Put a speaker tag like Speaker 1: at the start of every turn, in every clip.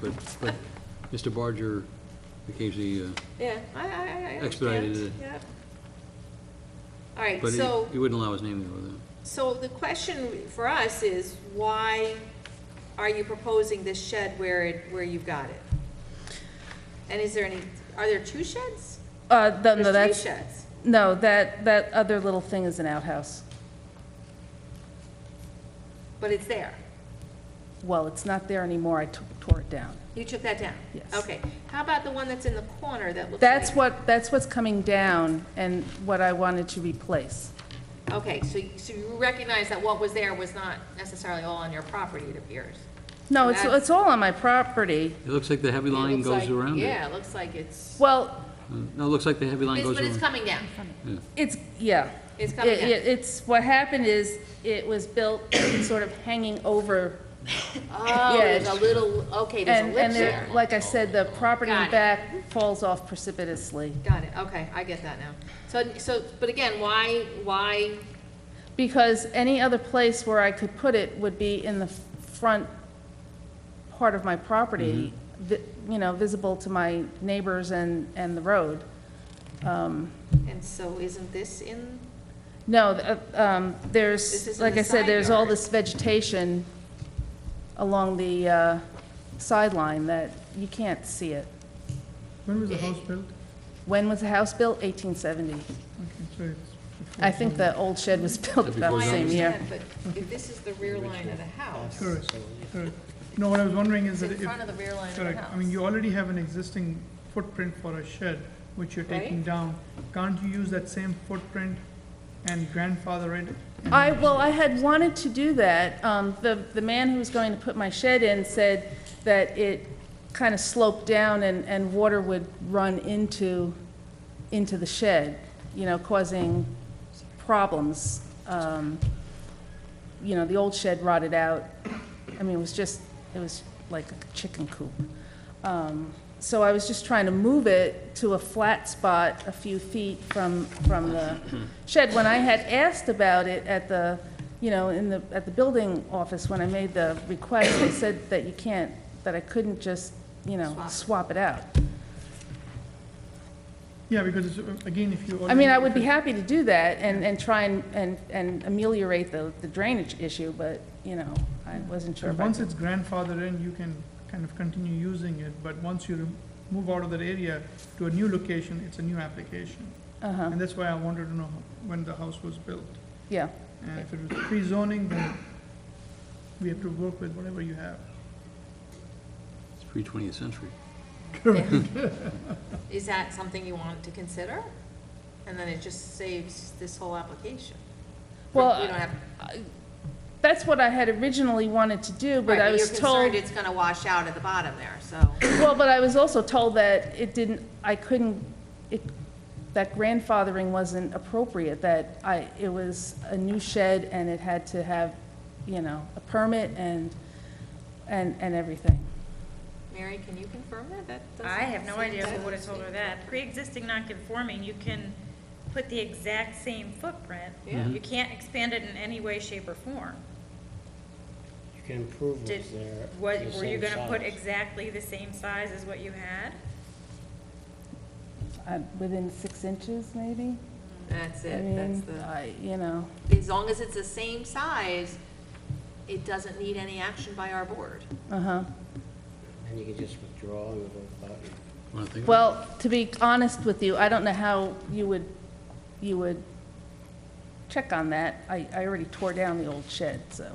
Speaker 1: but, but Mr. Barger became the, uh,
Speaker 2: Yeah, I, I, I understand.
Speaker 1: Expedited it.
Speaker 2: Yep. All right,
Speaker 1: but he
Speaker 2: so,
Speaker 1: he wouldn't allow his name to go there.
Speaker 2: so the question for us is, why are you proposing this shed where it, where you've got it? And is there any, are there two sheds?
Speaker 3: Uh, th- no,
Speaker 2: There's
Speaker 3: that's,
Speaker 2: three sheds.
Speaker 3: no, that, that other little thing is an outhouse.
Speaker 2: But it's there.
Speaker 3: Well, it's not there anymore, I t- tore it down.
Speaker 2: You took that down?
Speaker 3: Yes.
Speaker 2: Okay. How about the one that's in the corner that looks like?
Speaker 3: That's what, that's what's coming down and what I wanted to replace.
Speaker 2: Okay, so, you- so you recognize that what was there was not necessarily all on your property, it appears?
Speaker 3: No, it's,
Speaker 2: That's-
Speaker 3: it's all on my property.
Speaker 1: It looks like the heavy
Speaker 2: It
Speaker 1: line
Speaker 2: looks
Speaker 1: goes
Speaker 2: like-
Speaker 1: around it.
Speaker 2: Yeah, it looks like it's,
Speaker 3: Well,
Speaker 1: Mm, No, it looks like the heavy line
Speaker 2: it's-
Speaker 1: goes
Speaker 2: but it's
Speaker 1: around.
Speaker 2: coming down.
Speaker 3: it's, yeah.
Speaker 2: It's coming
Speaker 3: It-
Speaker 2: down.
Speaker 3: it- It's, what happened is, it was built sort of hanging over.
Speaker 2: Oh,
Speaker 3: Yeah,
Speaker 2: there's a
Speaker 3: it's-
Speaker 2: little, okay, there's a
Speaker 3: And,
Speaker 2: lip
Speaker 3: and there,
Speaker 2: there.
Speaker 3: like I said, the property in
Speaker 2: Got it.
Speaker 3: the back falls off precipitously.
Speaker 2: Got it, okay, I get that now. So, so, but again, why, why,
Speaker 3: Because any other place where I could put it would be in the front part of my property, vi- you know, visible to my neighbors and, and the road.
Speaker 2: and so isn't this in,
Speaker 3: No, th- uh, um,
Speaker 2: This is
Speaker 3: there's,
Speaker 2: in
Speaker 3: like
Speaker 2: the
Speaker 3: I said,
Speaker 2: side
Speaker 3: there's all
Speaker 2: yard.
Speaker 3: this vegetation along the uh, sideline that you can't see it.
Speaker 4: When was the house built?
Speaker 3: When was the house built? 1870.
Speaker 4: Okay, so it's
Speaker 3: I think the old shed was built
Speaker 1: That'd be
Speaker 3: about
Speaker 2: well,
Speaker 3: the
Speaker 2: I
Speaker 3: same year.
Speaker 2: understand, but if this is the rear line of the house,
Speaker 4: Correct, correct. No, what I was wondering
Speaker 2: it's
Speaker 4: is that
Speaker 2: in
Speaker 4: if,
Speaker 2: front of the rear line of the house.
Speaker 4: correct, I mean, you already have an existing footprint for a shed, which you're taking
Speaker 2: Right.
Speaker 4: down. Can't you use that same footprint and grandfather it? and-
Speaker 3: I, well, I had wanted to do that. Um, The, the man who was going to put my shed in said that it kind of sloped down and, and water would run into, into the shed, you know, causing problems. Um, You know, the old shed rotted out. I mean, it was just, it was like a chicken coop. Um, So I was just trying to move it to a flat spot a few feet from, from the shed. When I had asked about it at the, you know, in the, at the building office, when I made the request, they said that you can't, that I couldn't just, you know,
Speaker 2: Swap.
Speaker 3: swap it out.
Speaker 4: Yeah, because it's, uh, again, if you already.
Speaker 3: I mean, I would be happy to do that and, and try and, and and ameliorate the the drainage issue, but, you know, I wasn't sure.
Speaker 4: And
Speaker 3: if I
Speaker 4: Once
Speaker 3: could-
Speaker 4: it's grandfathered in, you can kind of continue using it, but once you rem- move out of that area to a new location, it's a new application.
Speaker 3: Uh-huh,
Speaker 4: And that's why I wanted to know when the house was built.
Speaker 3: yeah.
Speaker 4: And if it was pre-zoning, then we have to work with whatever you have.
Speaker 1: It's pre-20th century.
Speaker 2: is that something you want to consider? And then it just saves this whole application.
Speaker 3: Well,
Speaker 2: We don't have,
Speaker 3: That's what I had originally wanted to do,
Speaker 2: right,
Speaker 3: but I
Speaker 2: but you're
Speaker 3: was told.
Speaker 2: concerned it's gonna wash out at the bottom there, so.
Speaker 3: Well, but I was also told that it didn't, I couldn't, it, that grandfathering wasn't appropriate, that I, it was a new shed and it had to have, you know, a permit and, and, and everything.
Speaker 2: Mary, can you confirm that? That doesn't
Speaker 5: I have no
Speaker 2: seem
Speaker 5: idea
Speaker 2: to-
Speaker 5: who would have told her that. Pre-existing non-conforming, you can put the exact same footprint.
Speaker 2: Yeah.
Speaker 5: You can't expand it in any way, shape, or form.
Speaker 6: You can improve
Speaker 5: Did,
Speaker 6: what's there.
Speaker 5: what,
Speaker 6: the
Speaker 5: were you
Speaker 6: same
Speaker 5: gonna put
Speaker 6: size.
Speaker 5: exactly the same size as what you had?
Speaker 3: Uh, Within six inches, maybe?
Speaker 2: That's
Speaker 3: I
Speaker 2: it, that's
Speaker 3: mean,
Speaker 2: the,
Speaker 3: I, you know,
Speaker 2: as long as it's the same size, it doesn't need any action by our board.
Speaker 3: uh-huh.
Speaker 6: And you can just withdraw and vote about it.
Speaker 1: Wanna think about it?
Speaker 3: Well, to be honest with you, I don't know how you would, you would check on that. I, I already tore down the old shed, so,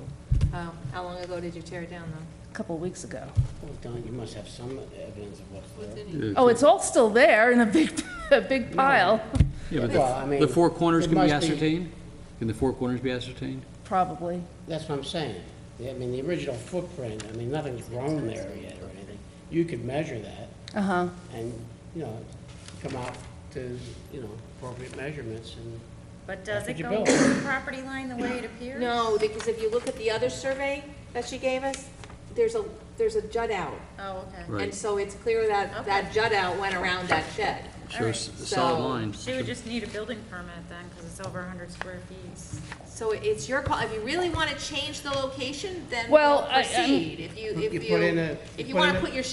Speaker 2: Oh, how long ago did you tear it down though?
Speaker 3: a couple of weeks ago.
Speaker 6: Well, Don, you must have some evidence of what's there.
Speaker 1: Yeah,
Speaker 3: Oh, it's all still there in a big, a big pile,
Speaker 1: Yeah, but
Speaker 6: Well, I
Speaker 1: the-
Speaker 6: mean,
Speaker 1: the four corners
Speaker 6: it
Speaker 1: can be
Speaker 6: must be-
Speaker 1: ascertained? Can the four corners be ascertained?
Speaker 3: probably.
Speaker 6: That's what I'm saying. Yeah, I mean, the original footprint, I mean, nothing's grown there yet or anything. You could measure that
Speaker 3: Uh-huh,
Speaker 6: and, you know, come out to, you know, appropriate measurements and.
Speaker 5: But does
Speaker 6: That's
Speaker 5: it
Speaker 6: what you
Speaker 5: go
Speaker 6: built.
Speaker 5: to the property line the way it appears?
Speaker 2: No, because if you look at the other survey that she gave us, there's a, there's a jut out.
Speaker 5: Oh, okay.
Speaker 1: Right.
Speaker 2: And so it's clear that, that jut out went around that shed.
Speaker 1: Shows
Speaker 2: right.
Speaker 1: a solid
Speaker 2: So-
Speaker 1: line.
Speaker 5: She would just need a building permit then, because it's over hundred square feet.
Speaker 2: So it's your call, if you really want to change the location, then
Speaker 3: Well,
Speaker 2: we'll
Speaker 3: I- I'm-
Speaker 2: proceed. If you, if
Speaker 6: You
Speaker 2: you,
Speaker 6: put in a-
Speaker 2: if
Speaker 6: you
Speaker 2: you
Speaker 6: put
Speaker 2: want
Speaker 6: in
Speaker 2: to
Speaker 6: a-
Speaker 2: put your